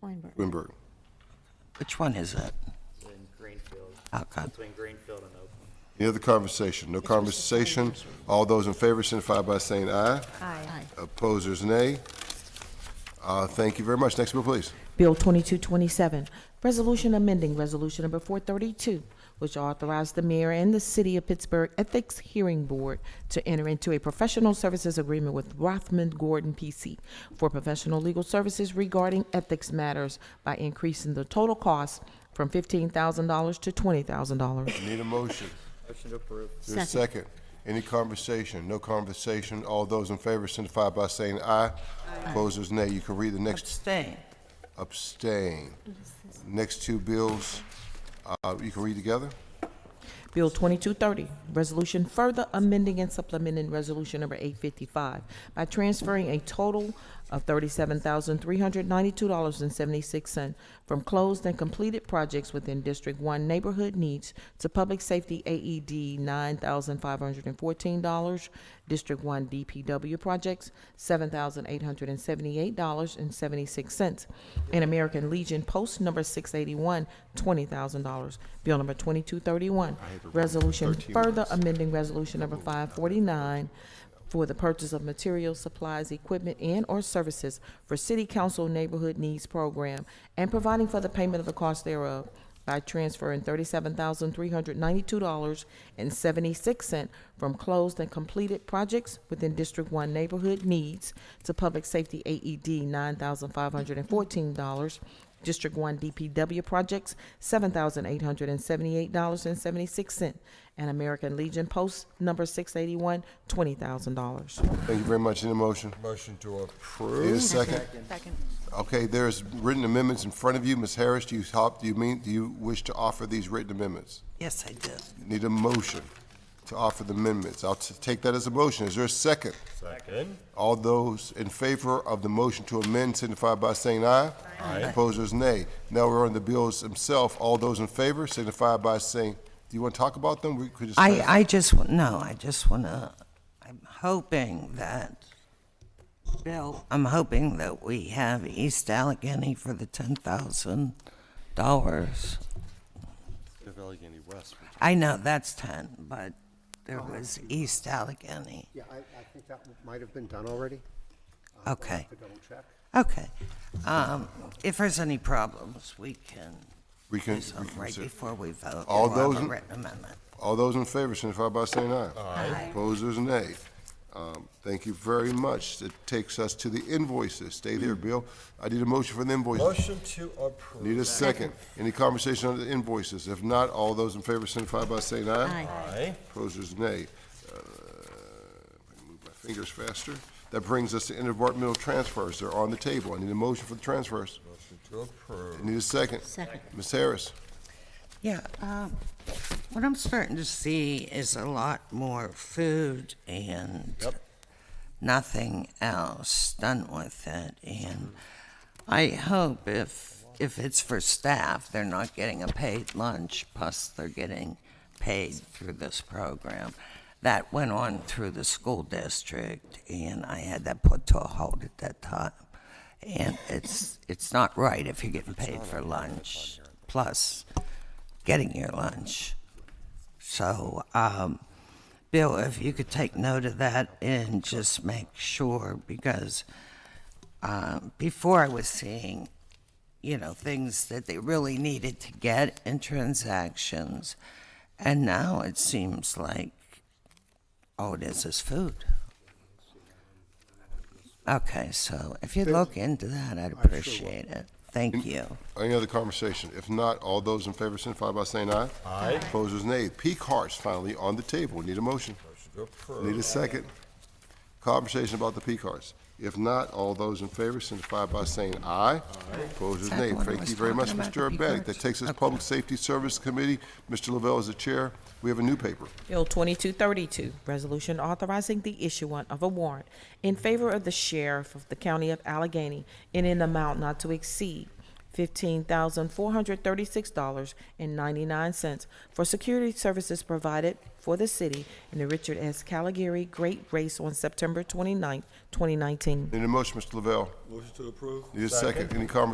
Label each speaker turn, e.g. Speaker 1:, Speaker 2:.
Speaker 1: Weinberg.
Speaker 2: Wimberg.
Speaker 3: Which one is that?
Speaker 4: in Greenfield,
Speaker 3: Outcome.
Speaker 4: between Greenfield and Oakland.
Speaker 2: Any other conversation? No conversation. All those in favor signify by saying aye.
Speaker 1: Aye.
Speaker 2: Opposers, nay. Uh, Thank you very much. Next bill, please.
Speaker 5: Bill 2227, Resolution Amending Resolution Number 432, which authorized the mayor and the City of Pittsburgh Ethics Hearing Board to enter into a professional services agreement with Rothman Gordon PC for professional legal services regarding ethics matters by increasing the total cost from $15,000 to $20,000.
Speaker 2: Need a motion.
Speaker 4: Motion to approve.
Speaker 2: Is there a
Speaker 1: Second.
Speaker 2: second? Any conversation? No conversation. All those in favor signify by saying aye. Opposers, nay. You can read the next
Speaker 3: Abstain.
Speaker 2: abstain. Next two bills, uh, you can read together?
Speaker 5: Bill 2230, resolution further amending and supplementing Resolution Number 855 by transferring a total of $37,392.76 from closed and completed projects within District 1 Neighborhood Needs to Public Safety E AED $9,514, District 1 DPW Projects $7,878.76, and American Legion Post Number 681 $20,000. Bill Number 2231, Resolution further amending Resolution Number 549 for the purchase of materials, supplies, equipment, and/or services for City Council Neighborhood Needs Program and providing for the payment of the cost thereof by transferring thirty-seven thousand three hundred ninety-two dollars and seventy-six cent from closed and completed projects within District One Neighborhood Needs to Public Safety AED nine thousand five hundred and fourteen dollars District One DPW projects, seven thousand eight hundred and seventy-eight dollars and seventy-six cent, and American Legion Post number six eighty-one, twenty thousand dollars.
Speaker 2: Thank you very much. Any motion?
Speaker 6: Motion to approve.
Speaker 2: Is there a second?
Speaker 1: Second.
Speaker 2: Okay, there's written amendments in front of you. Ms. Harris, do you hop, do you mean, do you wish to offer these written amendments?
Speaker 3: Yes, I do.
Speaker 2: Need a motion to offer the amendments. I'll t- take that as a motion. Is there a second?
Speaker 6: Second.
Speaker 2: All those in favor of the motion to amend signify by saying aye. Aye. Opposers, nay. Now we're on the bills themselves. All those in favor signify by saying, do you want to talk about them? We could just.
Speaker 3: I, I just, wa- no, I just want to, I'm hoping that, Bill, I'm hoping that we have East Allegheny for the $10,000. I know, that's 10, but there was East Allegheny.
Speaker 7: Oh, Yeah, I, I think that might have been done already.
Speaker 3: Okay,
Speaker 7: I don't check.
Speaker 3: okay. Um, If there's any problems, we can
Speaker 2: We can, we
Speaker 3: do
Speaker 2: can
Speaker 3: something right
Speaker 2: consider-
Speaker 3: before we vote.
Speaker 2: All
Speaker 3: We'll have
Speaker 2: those
Speaker 3: a
Speaker 2: in-
Speaker 3: written amendment.
Speaker 2: All those in favor signify by saying aye. Aye. Opposers, nay. Um, Thank you very much. That takes us to the invoices. Stay there, Bill. I need a Mm. motion for the invoices.
Speaker 6: Motion to approve.
Speaker 2: Need a second. Any conversation on the invoices? If not, all those in favor signify by saying aye.
Speaker 1: Aye.
Speaker 6: Aye.
Speaker 2: Opposers, nay. Uh, if I can Move my fingers faster. That brings us to interdepartmental transfers. They're on the table. I need a motion for the transfers.
Speaker 6: Motion to approve.
Speaker 2: Need a second.
Speaker 1: Second.
Speaker 2: Ms. Harris,
Speaker 3: Yeah, um, what I'm starting to see is a lot more food and nothing else done with it. And I hope if, if it's for staff, they're not getting a paid lunch, plus they're getting paid through this program. That went on through the school district, and I had that put to a halt at that time. And it's, it's not right if you're getting paid for lunch, plus getting your lunch. So, um, Bill, if you could take note of that and just make sure, because um, before I was seeing, you know, things that they really needed to get in transactions, and now it seems like all it is is food. Okay, so if you look into that, I'd appreciate it. Thank you.
Speaker 2: any other conversation? If not, all those in favor signify by saying aye. Aye. Opposers, nay. Peak Hearts finally on the table. Need a motion.
Speaker 6: Motion to approve.
Speaker 2: Need a second. Conversation about the Peak Hearts. If not, all those in favor signify by saying aye. Opposers,
Speaker 3: Is that
Speaker 2: nay.
Speaker 3: the one I
Speaker 2: Thank
Speaker 3: was
Speaker 2: you very much,
Speaker 3: talking about, the
Speaker 2: Mr.
Speaker 3: Peak
Speaker 2: Urbanek. That
Speaker 3: Hearts?
Speaker 2: takes us
Speaker 3: Okay.
Speaker 2: Public Safety Service Committee. Mr. Lavelle is the chair. We have a new paper.
Speaker 5: Bill 2232, resolution authorizing the issuance of a warrant in favor of the sheriff of the county of Allegheny in an amount not to exceed $15,436.99 for security services provided for the city in the Richard S. Caligari Great Race on September 29, 2019.
Speaker 2: Need a motion, Mr. Lavelle.
Speaker 6: Motion to approve.
Speaker 2: Need a second. Any conversation